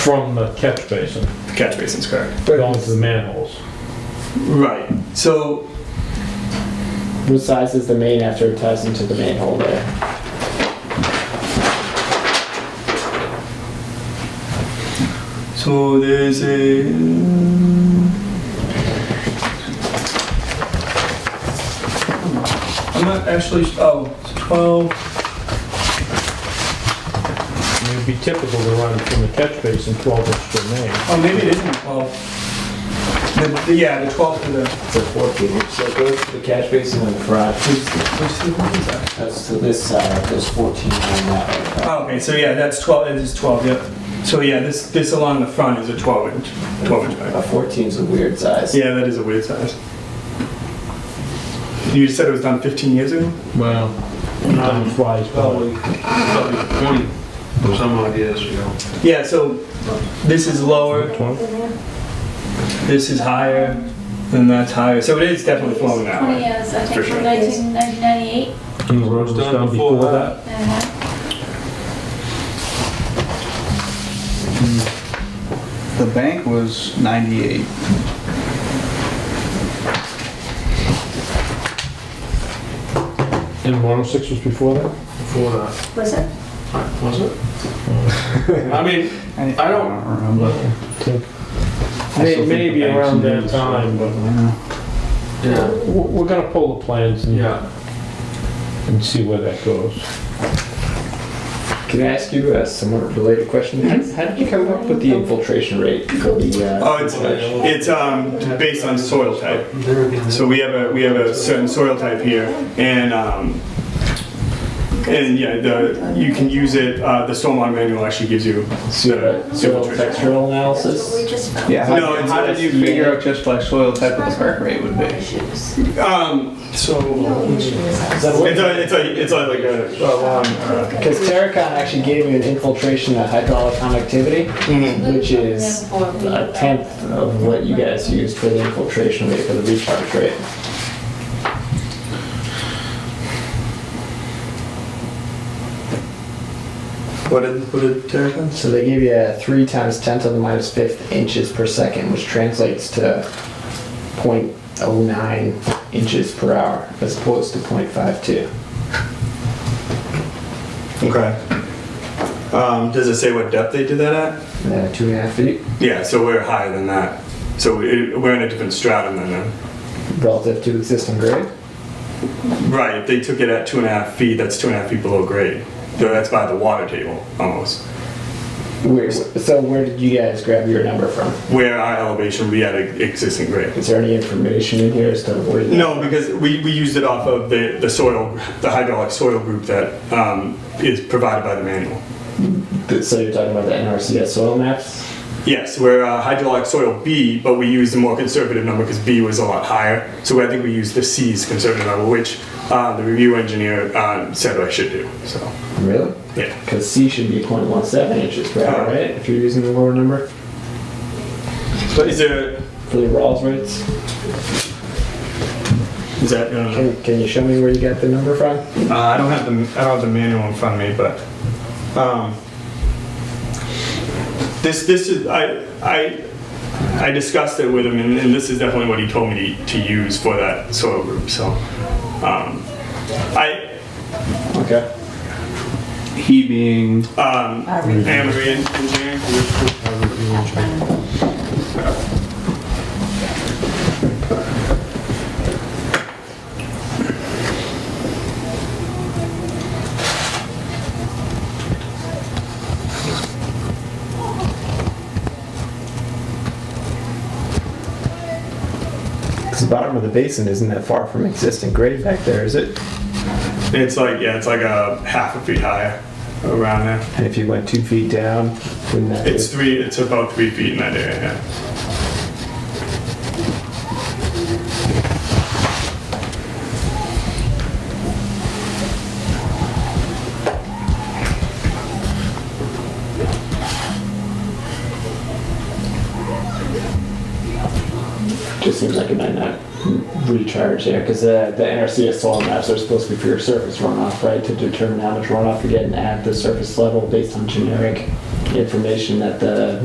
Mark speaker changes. Speaker 1: from the catch basin
Speaker 2: The catch basin's correct.
Speaker 1: going to the manholes.
Speaker 2: Right. So
Speaker 3: What size is the main after it ties into the main hole there?
Speaker 2: so there's a. I'm not actually. Oh, it's 12.
Speaker 1: It would be typical to run from the catch basin 12 inch to the main.
Speaker 2: Oh, maybe it isn't 12. The, the- yeah, the 12 to the.
Speaker 4: It's a 14 inch, so it goes to the catch basin on the front.
Speaker 2: Which, which one is that?
Speaker 3: That's to this side, there's 14 on that way.
Speaker 2: Oh, okay, so yeah, that's 12. It is 12, yep. So yeah, this this along the front is a 12 inch. 12 inch
Speaker 4: Uh,
Speaker 2: pipe.
Speaker 3: A 14's a weird size.
Speaker 2: Yeah, that is a weird size. You said it was done 15 years ago?
Speaker 5: Well,
Speaker 1: Time flies by.
Speaker 5: probably twenty or some odd years ago.
Speaker 2: Yeah, so this is lower, this is higher, and that's higher. So it is definitely flowing that
Speaker 6: Twenty
Speaker 2: way.
Speaker 6: years, I
Speaker 2: For
Speaker 6: think,
Speaker 2: sure.
Speaker 6: from nineteen ninety-eight. Uh-huh.
Speaker 1: And the road was done before that?
Speaker 7: The bank was 98.
Speaker 1: And 106 was before that?
Speaker 5: Before that,
Speaker 6: Was it?
Speaker 5: was it? I mean, I don't-
Speaker 7: remember.
Speaker 1: May- Maybe around that time, but
Speaker 5: yeah,
Speaker 1: w- we're gonna pull the plans and
Speaker 5: yeah.
Speaker 1: and see where that goes.
Speaker 4: Can I ask you a somewhat related question? How how did you come up with the infiltration rate for the? uh,
Speaker 2: Oh, it's it's um based on soil type.
Speaker 5: There again,
Speaker 2: So we have a we have a certain soil type here, and um, and yeah, the you can use it. Uh, the stormwater manual actually gives you the
Speaker 4: Soil
Speaker 2: infiltration.
Speaker 4: textural
Speaker 6: We
Speaker 4: analysis?
Speaker 6: just found.
Speaker 7: Yeah, how,
Speaker 2: No, it's-
Speaker 7: how did you figure out just by soil type what the perk rate would be?
Speaker 6: Issues.
Speaker 2: Um, so it's a it's a it's a, like a
Speaker 3: Because Terracon actually gave you an infiltration of hydraulic conductivity,
Speaker 2: Mm-hmm.
Speaker 3: which is a tenth
Speaker 4: Of what you guys used for the infiltration rate, for the recharge rate?
Speaker 2: what did what did Terry say?
Speaker 4: So they give you a 3 times 10 to the minus fifth inches per second, which translates to 0.09 inches per hour, as opposed to 0.52.
Speaker 2: Okay. Um, does it say what depth they did that at?
Speaker 4: Uh, two and a half feet
Speaker 2: Yeah, so we're higher than that. So we- we're in a different stratum than them.
Speaker 4: relative to existing grade.
Speaker 2: Right, if they took it at two and a half feet, that's two and a half feet below grade. So that's by the water table, almost.
Speaker 4: Where, so where did you guys grab your number from?
Speaker 2: Where our elevation would be at a existing grade.
Speaker 4: Is there any information in here as to where? that-
Speaker 2: No, because we, we used it off of the, the soil, the hydraulic soil group that um, is provided by the manual.
Speaker 4: So you're talking about the NRCS soil maps?
Speaker 2: Yes, we're uh, hydraulic soil B, but we used a more conservative number because B was a lot higher. So I think we used the C's conservative number, which uh, the review engineer uh, said I should do. So,
Speaker 4: Really?
Speaker 2: yeah.
Speaker 4: Because C should be 0.17 inches per hour, right? If you're using the lower number
Speaker 2: But is there,
Speaker 4: for the Rawls rates.
Speaker 2: is that, uh,
Speaker 4: Can, can you show me where you got the number from?
Speaker 2: Uh, I don't have the I don't have the manual in front of me, but um, this this is I I I discussed it with him, and, and this is definitely what he told me to, to use for that soil group. So um, I
Speaker 4: Okay.
Speaker 7: He being
Speaker 2: um, am a re- engineer.
Speaker 4: Because the bottom of the basin isn't that far from existing grade back there, is it?
Speaker 2: It's like yeah, it's like a half a feet higher around there.
Speaker 4: And if you went two feet down, wouldn't that
Speaker 2: It's three. It's about three feet in that area. Yeah.
Speaker 4: just seems like it might not recharge there? Because the, the NRCS soil maps are supposed to be for your surface runoff, right? To determine how much runoff you're getting at the surface level based on generic information that the